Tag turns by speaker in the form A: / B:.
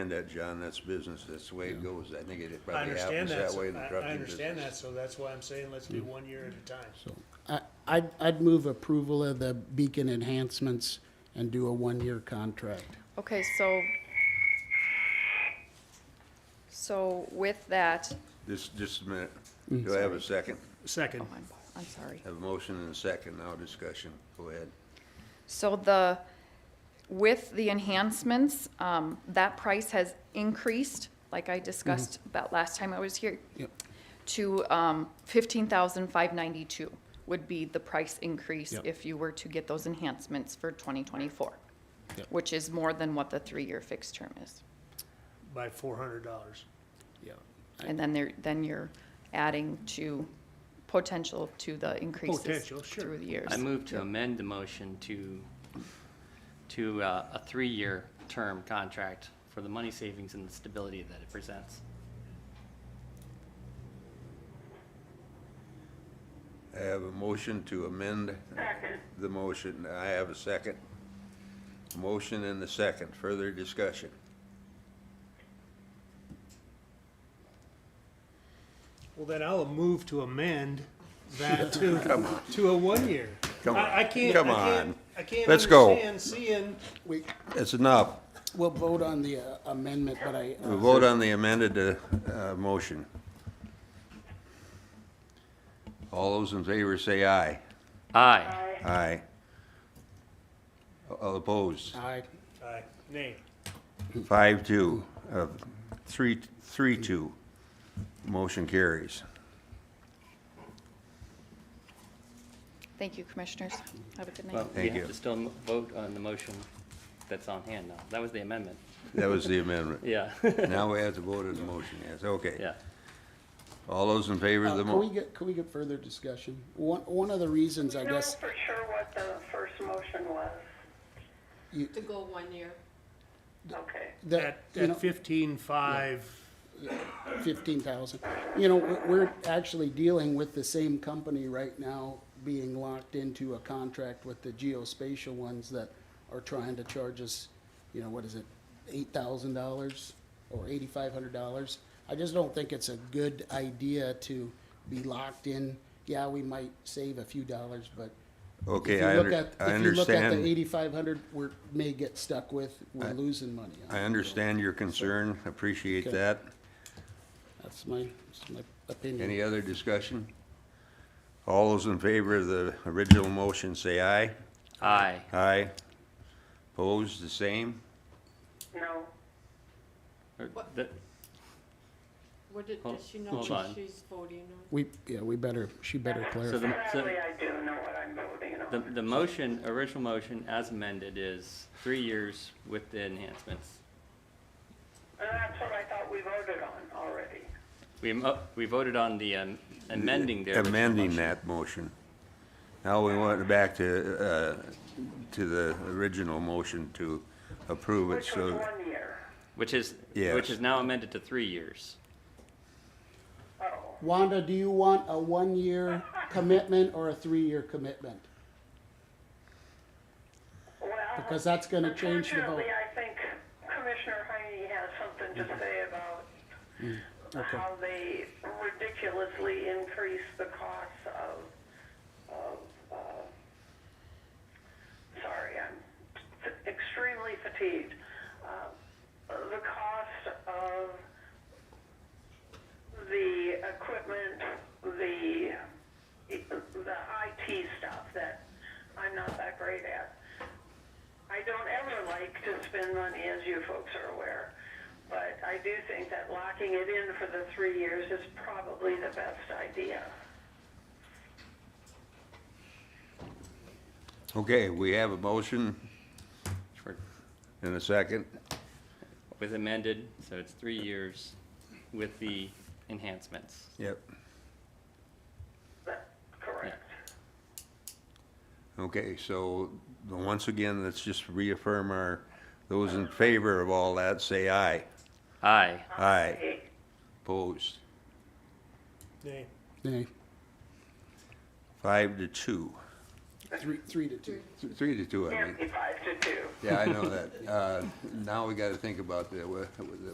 A: And that, John, that's business, that's the way it goes, I think it
B: I
A: probably happens
B: understand that,
A: that
B: so
A: way in the
B: I, I
A: trucking
B: understand that,
A: business.
B: so that's why I'm saying let's do one year at a time.
C: So,
D: I, I'd, I'd move approval of the beacon enhancements and do a one-year contract.
E: Okay, so, so with that,
A: Just, just a minute,
B: Mm-hmm.
A: do I have a second?
B: Second.
E: oh, I'm, I'm sorry.
A: Have a motion and a second, now discussion, go ahead.
E: So the, with the enhancements, um, that price has increased, like I discussed that last time I was here.
D: Mm-hmm. Yep.
E: To, um, fifteen thousand five ninety-two would be the price increase
D: Yep.
E: if you were to get those enhancements for twenty twenty-four,
D: Yep.
E: which is more than what the three-year fixed term is.
B: By four hundred dollars.
E: And then there, then you're adding to potential to the increases
B: Potential, sure.
E: through the years.
F: I move to amend the motion to, to uh, a three-year term contract for the money savings and the stability that it presents.
A: I have a motion to amend the motion, I have a second. Motion and a second, further discussion.
B: Well, then I'll move to amend that to, to a one year.
A: Come on.
B: I, I can't, I
A: Come
B: can't,
A: on.
B: I can't
A: Let's go.
B: understand seeing,
D: We,
A: That's enough,
D: we'll vote on the uh, amendment, but I,
A: we
D: uh,
A: vote on the amended, uh, uh, motion. All those in favor say aye.
F: Aye.
A: Aye. All opposed?
D: I,
B: aye, nay.
A: Five, two, uh, three, three, two. Motion carries.
E: Thank you, commissioners. Have a good night.
F: Well, we
A: Thank you.
F: have to still m- vote on the motion that's on hand now. That was the amendment.
A: That was the amendment.
F: Yeah,
A: Now we have to vote on the motion, yes, okay.
F: yeah.
A: All those in favor of
D: uh,
A: the
D: can we
A: mo,
D: get, can we get further discussion? One, one of the reasons, I
G: know
D: guess,
G: for sure what the first motion was.
H: To go one year.
G: Okay.
D: that,
B: At,
D: you know.
B: at fifteen-five,
D: fifteen thousand. You know, we- we're actually dealing with the same company right now being locked into a contract with the geospatial ones that are trying to charge us, you know, what is it, eight thousand dollars or eighty-five hundred dollars? I just don't think it's a good idea to be locked in. Yeah, we might save a few dollars, but
A: Okay,
D: if you
A: I
D: look
A: under-
D: at-
A: I
D: If you look at
A: understand.
D: the eighty-five hundred, we're, may get stuck with, we're losing money. on
A: I
D: it.
A: understand your concern, appreciate
D: Okay.
A: that.
D: That's my, that's my opinion.
A: Any other discussion? All those in favor of the original motion, say aye.
F: Aye.
A: Aye. Opposed, the same?
G: No.
F: Or
H: What?
F: the-
H: What did,
F: Hold-
H: does she know
F: hold
H: what
F: on.
H: she's voting on?
D: We, yeah, we better, she better
F: So
D: clarify.
F: the, so
G: Apparently I do know what I'm voting
F: the,
G: on.
F: the motion, original motion as amended is three years with the enhancements.
G: And that's what I thought we voted on already.
F: We, mo- we voted on the um, amending the original
A: amending
F: motion.
A: that motion. Now we want it back to, uh, to the original motion to approve it,
G: Which
F: uh,
G: was
A: so,
G: one year.
F: Which is,
A: Yes.
F: which is now amended to three years.
G: Oh,
D: Wanda, do you want a one-year commitment or a three-year commitment?
G: well.
D: Because that's gonna change the vote. Mm.
G: Unfortunately, I think Commissioner Heine has something to say about
D: okay.
G: how they ridiculously increase the cost of, of, uh, sorry, I'm f- extremely fatigued. Uh, The cost of the equipment, the, the IT stuff that I'm not that great at. I don't ever like to spend money, as you folks are aware, but I do think that locking it in for the three years is probably the best idea.
A: okay, we have a motion
F: For-
A: and a second.
F: With amended, so it's three years with the enhancements.
A: Yep.
G: But, correct.
A: Okay, so, once again, let's just reaffirm our, those in favor of all that, say aye.
F: Aye.
A: Aye,
G: Okay.
A: opposed,
B: nay.
D: Nay.
A: five to two.
D: three, three to two.
A: Three to two, I mean.
G: Can't be five to two.
A: Yeah, I know that. Uh, Now we got to think about the, the